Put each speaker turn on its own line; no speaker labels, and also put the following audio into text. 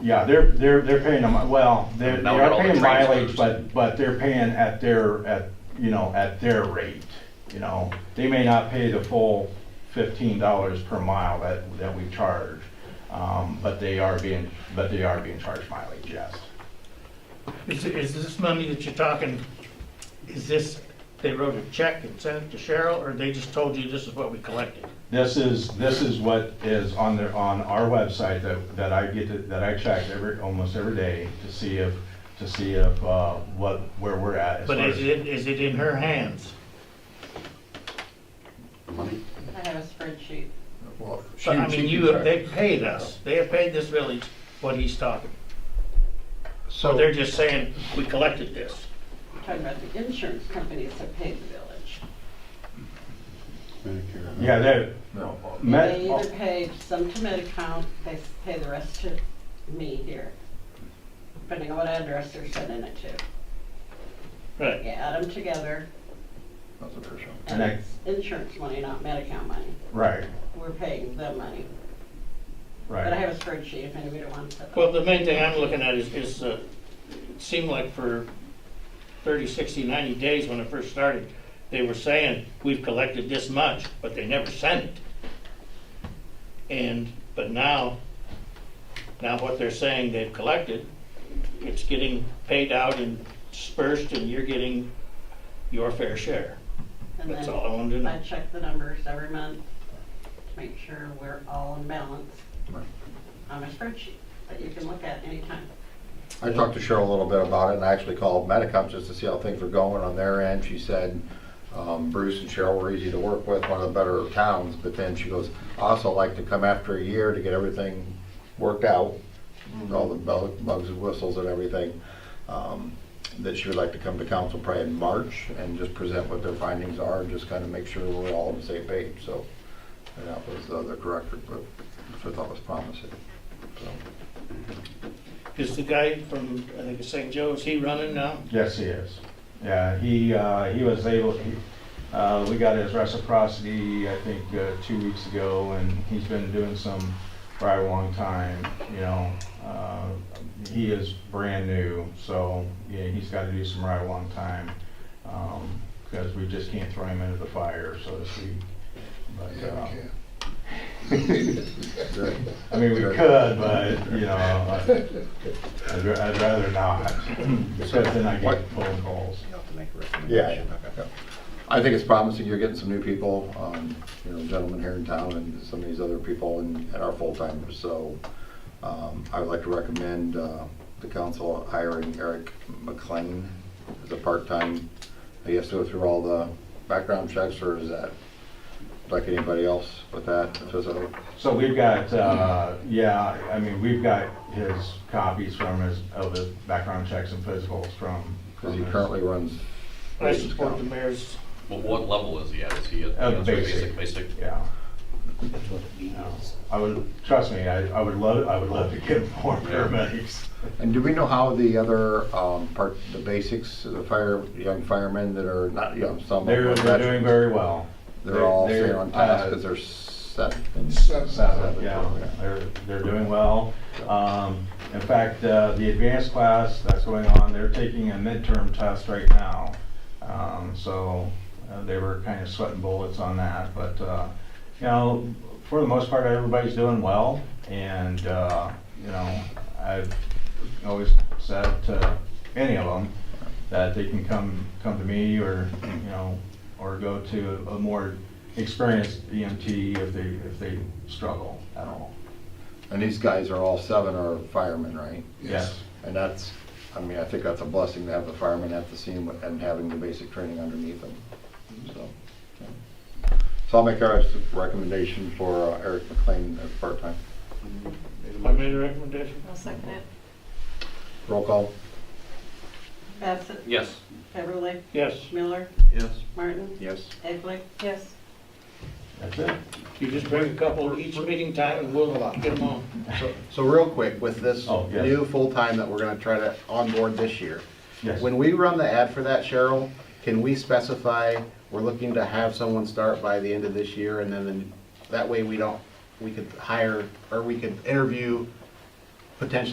Yeah, they're, they're, they're paying them, well, they're, they
Now we got
are
all the
paying mileage,
transfers.
but, but they're paying at their, at, you know, at their rate, you know? They may not pay the full fifteen dollars per mile that, that we charge, um, but they are being, but they are being charged mileage, yes.
Is, is this money that you're talking, is this, they wrote a check and sent it to Cheryl, or they just told you this is what we collected?
This is, this is what is on their, on our website that, that I get, to- that I check every, almost every day to see if, to see if, uh, what, where we're at. as
But
far
is
as-
it, is it in her hands?
Money?
I have a spreadsheet.
Well, she-
But I
she
mean,
can
you,
try.
they paid us, they have paid this village what he's talking.
So,
They're just saying, we collected this.
Talking about the insurance companies that pay the village.
Medicare.
Yeah, they're, oh,
no,
Med-
They either pay some to Mid-Account, they s- pay the rest to me here, depending on what address they're sending it to.
Right.
You add them together,
that's a person.
and
And I-
it's insurance money, not Medi-Cal money.
right,
We're paying them money.
right.
But I have a spreadsheet if anybody wants it.
Well, the main thing I'm looking at is, is, uh, it seemed like for 30, 60, 90 days when it first started, they were saying, we've collected this much, but they never sent it. And, but now, now what they're saying they've collected, it's getting paid out and dispersed, and you're getting your fair share.
And
That's
then
all I wanted to know.
I check the numbers every month to make sure we're all in balance
Right.
on my spreadsheet that you can look at anytime.
I talked to Cheryl a little bit about it, and I actually called Medicom just to see how things were going on their end. She said um, Bruce and Cheryl were easy to work with, one of the better towns, but then she goes, "I also like to come after a year to get everything worked out,
Mm-hmm.
all the bu- bugs and whistles and everything." um, That she would like to come to council probably in March and just present what their findings are, and just kind of make sure we're all on the same page, so. And that was the other director, but that's what I thought was promising, so.
Is the guy from, I think it's St. Joe, is he running now?
Yes, he is. Yeah, he, uh, he was able, he, uh, we got his reciprocity, I think, uh, two weeks ago, and he's been doing some for a long time, you know. Uh, he is brand new, so, yeah, he's gotta do some right a long time, um, because we just can't throw him into the fire, so to speak. But, uh, I mean, we could, but, you know, I- I'd ra- I'd rather not, because then I get phone calls.
Yeah, yeah. I think it's promising, you're getting some new people, um, you know, gentlemen here in town and some of these other people and, and our full-timers, so, um, I would like to recommend, uh, the council hiring Eric McLean as a part-time, he has to go through all the background checks, or is that, like anybody else with that, if it's a-
So we've got, uh, yeah, I mean, we've got his copies from his, of his background checks and physicals from.
cause
from
he
his-
currently runs.
I support the mayor's
Well, what level is he at? Is he at?
Uh,
that's what,
basic.
Basic,
Yeah. I would, trust me, I, I would love, I would love to get more paramedics.
And do we know how the other, um, part, the basics, the fire, young firemen that are not young, some. of them
They're,
are
they're
veterans?
doing very well.
They're all
They're-
staying on task
uh,
because they're seven.
Seven,
Seven,
yeah,
okay.
they're, they're doing well. Um, in fact, uh, the advanced class that's going on, they're taking a midterm test right now. Um, so, uh, they were kind of sweating bullets on that, but, uh, you know, for the most part, everybody's doing well. And, uh, you know, I've always said to any of them that they can come, come to me or, you know, or go to a more experienced EMT E if they, if they struggle at all.
And these guys are all seven are firemen, right?
Yes.
And that's, I mean, I think that's a blessing to have the firemen at the scene with- and having the basic training underneath them, so. yeah. So I'll make our recommendation for uh, Eric McLean as part-time.
I made a recommendation.
I'll second it.
Roll call?
Bassett?
yes.
Everly?
Yes,
Miller?
Yes.
Martin?
Yes.
Egley? Yes.
That's it.
you just bring a couple each meeting time and we'll get them on.
So- So real quick, with this
Oh, yes.
new full-time that we're gonna try to onboard this year,
Yes.
when we run the ad for that, Cheryl, can we specify, we're looking to have someone start by the end of this year, and then, the- that way we don't, we could hire, or we could interview potentially